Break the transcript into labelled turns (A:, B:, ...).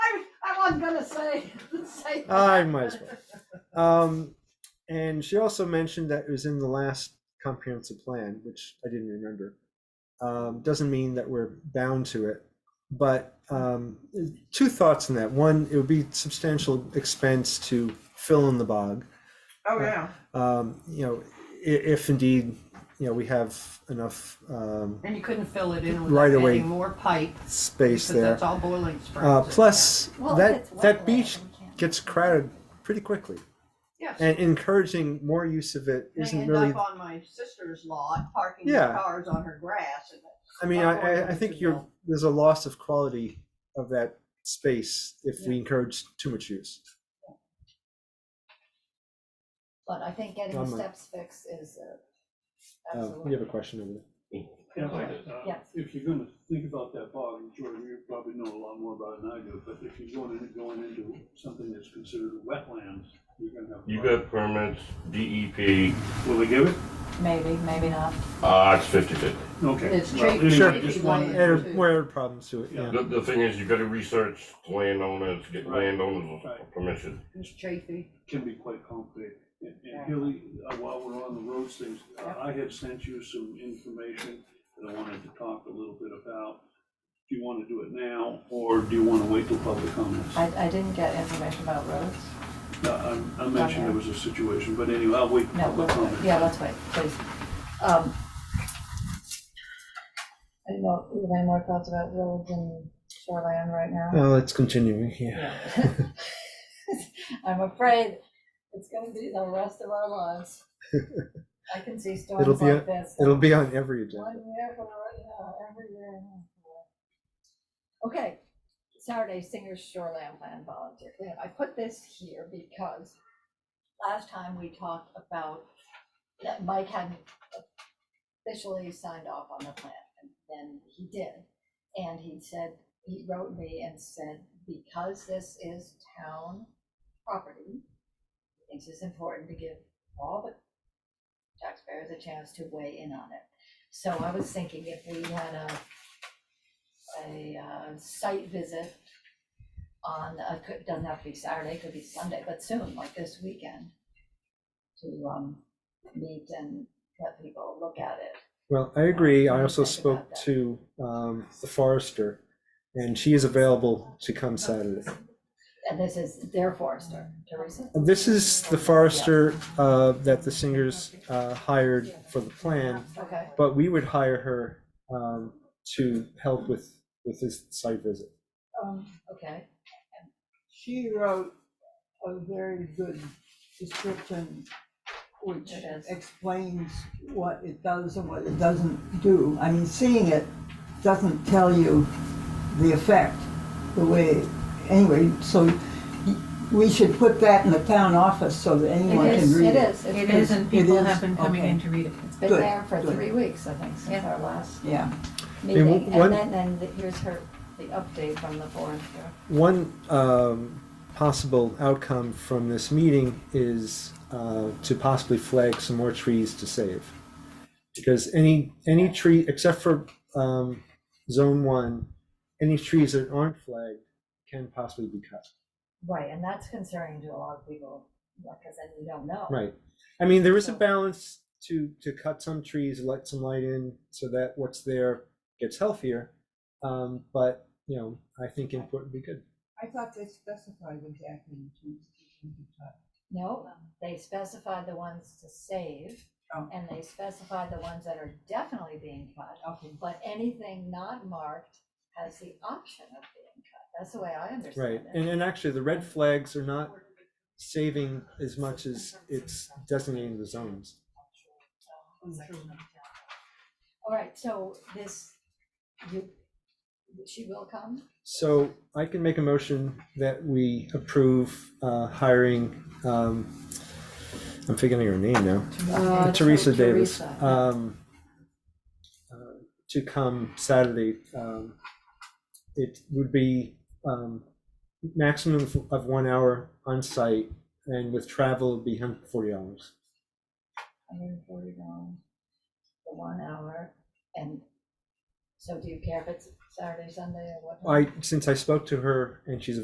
A: I'm gonna say, say.
B: I
A: that.
B: might as well. Um, and she also mentioned that it was in the last comprehensive plan, which I didn't remember. Um, doesn't mean that we're bound to it, but um, two thoughts on that. One, it would be substantial expense to fill in the bog.
C: Oh, yeah,
B: Um, you know, i- if indeed, you know, we have enough um,
A: And you couldn't fill it in
B: Right
A: without
B: away.
A: adding more pipe, because
B: space there.
A: that's all boiling springs.
B: Uh,
A: in
B: plus,
D: Well, if
B: that
D: it's
B: that
D: wetland,
B: beach
D: we can't-
B: gets crowded pretty quickly.
A: there. Yes,
B: and encouraging more use of it
A: they
B: isn't
A: end
B: really.
A: up on my sister's lot, parking their
B: Yeah.
A: cars on her grass and. it's
B: I mean,
A: not
B: I, I, I
A: going
B: think
A: to
B: you're,
A: build.
B: there's a loss of quality of that space if we encourage too much use.
D: But I think getting
B: Oh,
D: the
B: my.
D: steps fixed is uh,
B: Uh,
D: absolutely.
B: we have a question over there.
E: Yeah, but, uh,
D: Yes.
E: If you're gonna think about that bog, and Jordan, you probably know a lot more about it than I do, but if you're going into, going into something that's considered wetlands, you're gonna have. a
F: You got
E: bog.
F: permits, DEP,
E: Will they give it?
D: Maybe, maybe not.
F: uh, it's fifty fifty.
E: Okay.
A: It's
E: Well,
A: treated-
E: anyway,
B: treated
E: just
A: like
E: wanted-
A: Yeah.
B: And where are problems to it, yeah.
F: The, the thing is, you gotta research landowners, get
E: Right.
F: landowners
E: Right.
F: permission.
A: It's chafy.
E: Can be quite complicated. And and
A: Yeah.
E: Hilly, uh, while we're on the roads things, uh,
A: Yeah.
E: I had sent you some information that I wanted to talk a little bit about. Do you wanna do it now, or do you wanna wait till public comments?
D: I, I didn't get information about roads.
E: No, I- I mentioned there was a situation, but anyway, I'll wait. for
D: No,
E: public
D: let's wait.
E: comments.
D: Yeah, let's wait, please. Um, I don't know, you have any more thoughts about roads and shoreline right now?
B: Well, it's continuing, yeah.
D: I'm afraid it's gonna be the rest of our lives. I can see
B: It'll
D: storms
B: be a-
D: like this.
B: It'll be on every
D: One
B: agenda.
D: year from right now, every year. and a half. Okay, Saturday Singers Shoreland Plan Volunteer Cleanup. I put this here because last time we talked about that Mike hadn't officially signed off on the plan, and then he did. And he said, he wrote me and said, because this is town property, he thinks it's important to give all the taxpayers a chance to weigh in on it. So I was thinking if we had a, a uh, site visit on, uh, could, doesn't have to be Saturday, could be Sunday, but soon, like this weekend, to, um, meet and let people look at it.
B: Well, I agree. I
D: What do you
B: also
D: think about
B: spoke
D: that?
B: to, um, the forester and she is available to come Saturday.
D: And this is their forester, Teresa.
B: Uh, This is the forester, uh, that the singers, uh, hired for the plan.
D: Okay,
B: But we would hire her um, to help with with this site visit.
G: Um,
D: okay,
G: she wrote a very good description, which
D: It is.
G: explains what it does and what it doesn't do. I mean, seeing it doesn't tell you the effect the way, anyway, so y- we should put that in the town office so that anyone
D: It
G: can
D: is,
G: read
D: it
G: it.
D: is.
H: It
D: It's
H: is, and people
G: is,
H: have been coming
G: okay.
H: in to read it.
D: been
G: good,
D: there for
G: good.
D: three weeks, I think, since our last
G: Yeah.
B: mean,
D: meeting.
B: one-
D: And then, then the- here's her, the update from the forester.
B: One um, possible outcome from this meeting is uh, to possibly flag some more trees to save. Because any any tree except for um, zone one, any trees that aren't flagged can possibly be cut.
D: Right, and that's concerning to a lot of people, because then you don't know.
B: Right. I mean, there is a
D: So-
B: balance to, to cut some trees, let some light in so that what's there gets healthier. Um, but, you know, I think input would be good.
G: I thought they specified exactly in terms
D: No, um, they specified the ones to save,
G: Oh.
D: and they specified the ones that are definitely being cut.
G: Okay.
D: But anything not marked has the option of being cut. That's the way I understand
B: Right.
D: it.
B: And, and actually the red flags are not saving as much as it's designating the zones.
D: All right, so this, you, she will come?
B: So I can make a motion that we approve, uh, hiring, um, I'm figuring her name now.
D: Uh,
B: Teresa Davis,
D: Teresa.
B: um, uh, to come Saturday. Um, it would be, um, maximum of- of one hour on site and with travel it'd be hundred and forty dollars.
D: Hundred and forty dollars for one hour, and so do you care if it's Saturday, Sunday, or what?
B: I, since I spoke to her and she's